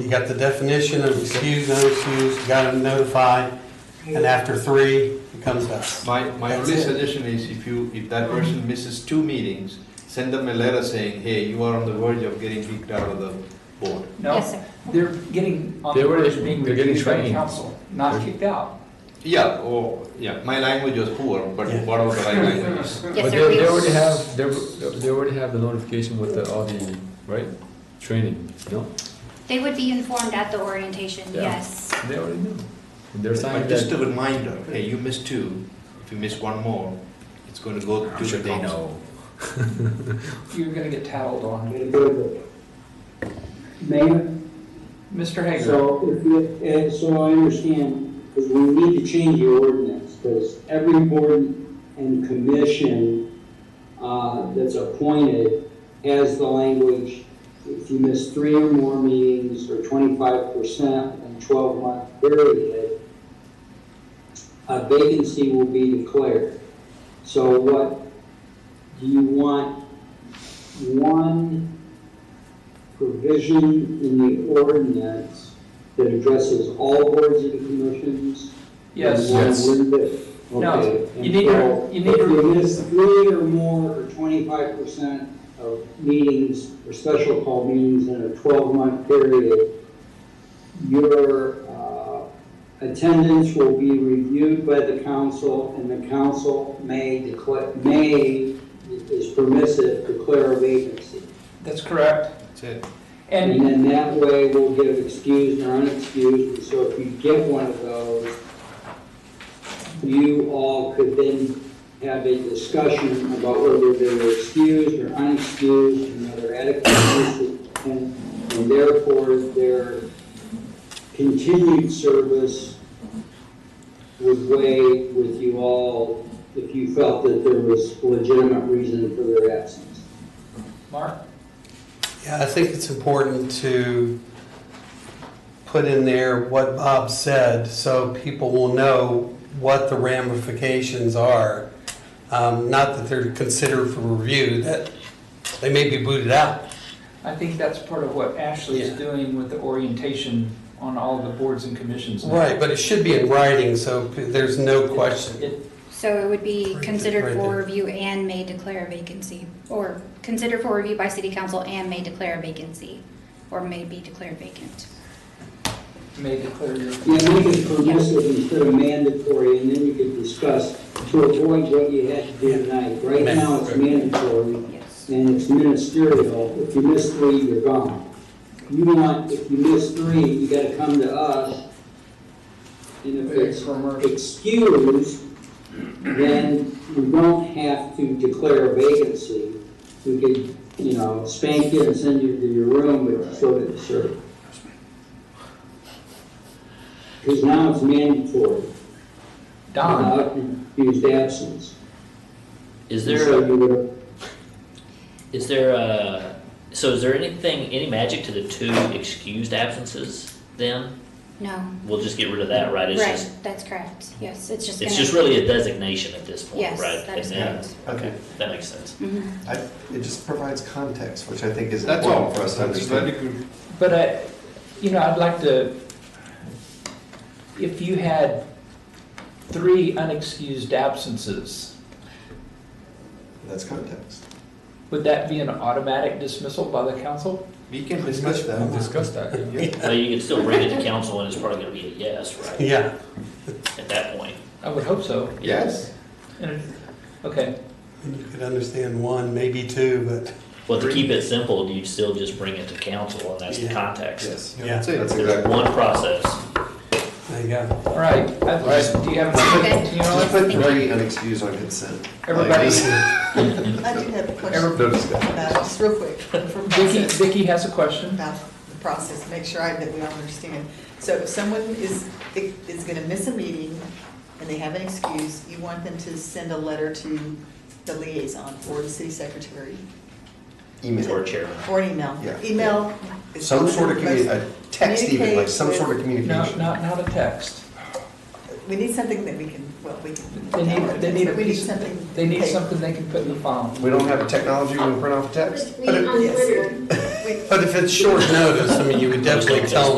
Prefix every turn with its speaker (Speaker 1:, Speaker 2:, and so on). Speaker 1: You got the definition of excused, no excuse, you got them notified, and after three, it comes to us.
Speaker 2: My, my
Speaker 1: That's
Speaker 2: only
Speaker 1: it.
Speaker 2: suggestion is if you, if that person misses two meetings, send them a letter saying, hey, you are on the verge of getting kicked out of the board.
Speaker 3: Yes,
Speaker 4: No,
Speaker 3: sir.
Speaker 4: they're getting on the
Speaker 5: They were-
Speaker 4: verge of being
Speaker 5: they're getting
Speaker 4: reviewed by the
Speaker 5: trained.
Speaker 4: council, not kicked out.
Speaker 2: Yeah, oh, yeah, my language was poor, but
Speaker 1: Yeah.
Speaker 2: whatever the right language is.
Speaker 3: Yes,
Speaker 5: But
Speaker 3: sir.
Speaker 5: they, they
Speaker 3: we-
Speaker 5: already have, they, they already have the notification with the, all the, right, training, no?
Speaker 3: They would be informed at the orientation,
Speaker 5: Yeah.
Speaker 3: yes.
Speaker 5: They already know. And they're signing
Speaker 2: But just a
Speaker 5: that.
Speaker 2: reminder, hey, you missed two, if you miss one more, it's going to go to the council.
Speaker 4: You're gonna get tattled on.
Speaker 6: Mayor,
Speaker 4: Mr. Hager,
Speaker 6: so if you, eh, so I understand, because we need to change the ordinance, because every board and commission uh, that's appointed has the language, if you miss three or more meetings or twenty-five percent in twelve-month period, a vacancy will be declared. So what, do you want one provision in the ordinance that addresses all boards and commissions?
Speaker 4: yes.
Speaker 6: And one
Speaker 5: Yes.
Speaker 6: word that-
Speaker 4: No,
Speaker 6: okay,
Speaker 4: you
Speaker 6: and
Speaker 4: need to-
Speaker 6: so
Speaker 4: you need to-
Speaker 6: If you miss three or more, or twenty-five percent of meetings, or special call meetings in a twelve-month period, your, uh, attendance will be reviewed by the council, and the council may declare, may, is permissive, declare a vacancy.
Speaker 4: That's correct.
Speaker 2: That's it.
Speaker 6: And
Speaker 4: And
Speaker 6: then that way we'll give excused or unexcused, and so if you get one of those, you all could then have a discussion about whether they were excused or unexcused, and whether adequate notice, and, and therefore their continued service would weigh with you all if you felt that there was legitimate reason for their absence.
Speaker 4: Mark,
Speaker 1: Yeah, I think it's important to put in there what Bob said, so people will know what the ramifications are. Um, Not that they're considered for review, that they may be booted out.
Speaker 4: I think that's part of what Ashley is
Speaker 1: Yeah.
Speaker 4: doing with the orientation on all the boards and commissions. now.
Speaker 1: Right, but it should be in writing, so p- there's no question.
Speaker 4: It-
Speaker 3: So it would be
Speaker 1: Right, right
Speaker 3: considered for
Speaker 1: there.
Speaker 3: review and may declare a vacancy, or considered for review by city council and may declare a vacancy, or may be declared vacant.
Speaker 4: May declare your.
Speaker 6: Yeah, make it permissive instead of mandatory, and then you could discuss to avoid what you had to do tonight. Right now, it's mandatory,
Speaker 3: Yes.
Speaker 6: and it's ministerial. If you miss three, you're gone. You want, if you miss three, you gotta come to us. And if it's excused, then we don't have to declare a vacancy. We could, you know, spank you and send you to your room, but you still didn't serve. Because now it's mandatory,
Speaker 4: Don,
Speaker 6: without excused absence.
Speaker 7: Is
Speaker 6: So
Speaker 7: there
Speaker 6: you would-
Speaker 7: is there uh so is there anything any magic to the two excused absences then?
Speaker 3: No,
Speaker 7: We'll just get rid of that, right? It's
Speaker 3: right,
Speaker 7: just
Speaker 3: that's correct, yes, it's just gonna.
Speaker 7: it's just really a designation at this point,
Speaker 3: Yes,
Speaker 7: right?
Speaker 3: that is
Speaker 7: And
Speaker 3: correct.
Speaker 7: then- Okay, that makes sense.
Speaker 3: Mhm.
Speaker 8: I- It just provides context, which I think is
Speaker 2: That's all.
Speaker 8: important for us to
Speaker 2: That's
Speaker 8: understand.
Speaker 2: very good.
Speaker 4: but I, you know, I'd like to, if you had three unexcused absences,
Speaker 8: That's context.
Speaker 4: would that be an automatic dismissal by the council?
Speaker 2: We can discuss
Speaker 5: We'll
Speaker 2: that.
Speaker 5: discuss that, yeah.
Speaker 8: Yeah.
Speaker 7: Well, you can still bring it to council and it's probably gonna be a yes, right?
Speaker 1: Yeah,
Speaker 7: At that point.
Speaker 4: I would hope so.
Speaker 2: Yes,
Speaker 4: And it- Okay,
Speaker 1: and you could understand one, maybe two, but
Speaker 7: Well, to keep it simple, you still just bring it to council and that's the
Speaker 1: Yeah.
Speaker 7: context.
Speaker 8: Yes,
Speaker 1: yeah,
Speaker 2: that's it.
Speaker 8: that's
Speaker 7: There's
Speaker 8: exactly.
Speaker 7: one process.
Speaker 1: there you go.
Speaker 4: all right. I-
Speaker 8: Right.
Speaker 4: Do you have a
Speaker 3: Okay.
Speaker 4: you know,
Speaker 8: Just
Speaker 4: like,
Speaker 8: put three unexcused on consent.
Speaker 4: everybody,
Speaker 9: I do have a question
Speaker 8: No discussion.
Speaker 9: about, just real quick, from
Speaker 4: Vicky,
Speaker 9: process,
Speaker 4: Vicky has a question.
Speaker 9: about the process, make sure I, that we all understand. So if someone is, is gonna miss a meeting and they have an excuse, you want them to send a letter to the liaison or the city secretary
Speaker 7: Or
Speaker 8: Email.
Speaker 7: chairman.
Speaker 9: or an email.
Speaker 8: Yeah.
Speaker 9: Email. is
Speaker 8: Some
Speaker 9: one
Speaker 8: sort of
Speaker 9: the
Speaker 8: commu,
Speaker 9: most-
Speaker 8: a text even, like some sort
Speaker 9: Communicate
Speaker 8: of
Speaker 4: No,
Speaker 8: communication.
Speaker 4: not, not a text.
Speaker 9: We need something that we can, well, we
Speaker 4: They
Speaker 9: can.
Speaker 4: need, they need a
Speaker 9: We need
Speaker 4: piece,
Speaker 9: something.
Speaker 4: they need
Speaker 9: paper.
Speaker 4: something they can put in the file.
Speaker 8: We don't have a technology, we can print off text.
Speaker 10: Read on
Speaker 9: Yes.
Speaker 10: Twitter.
Speaker 9: we-
Speaker 1: But if it's short notice, I mean, you would definitely tell them.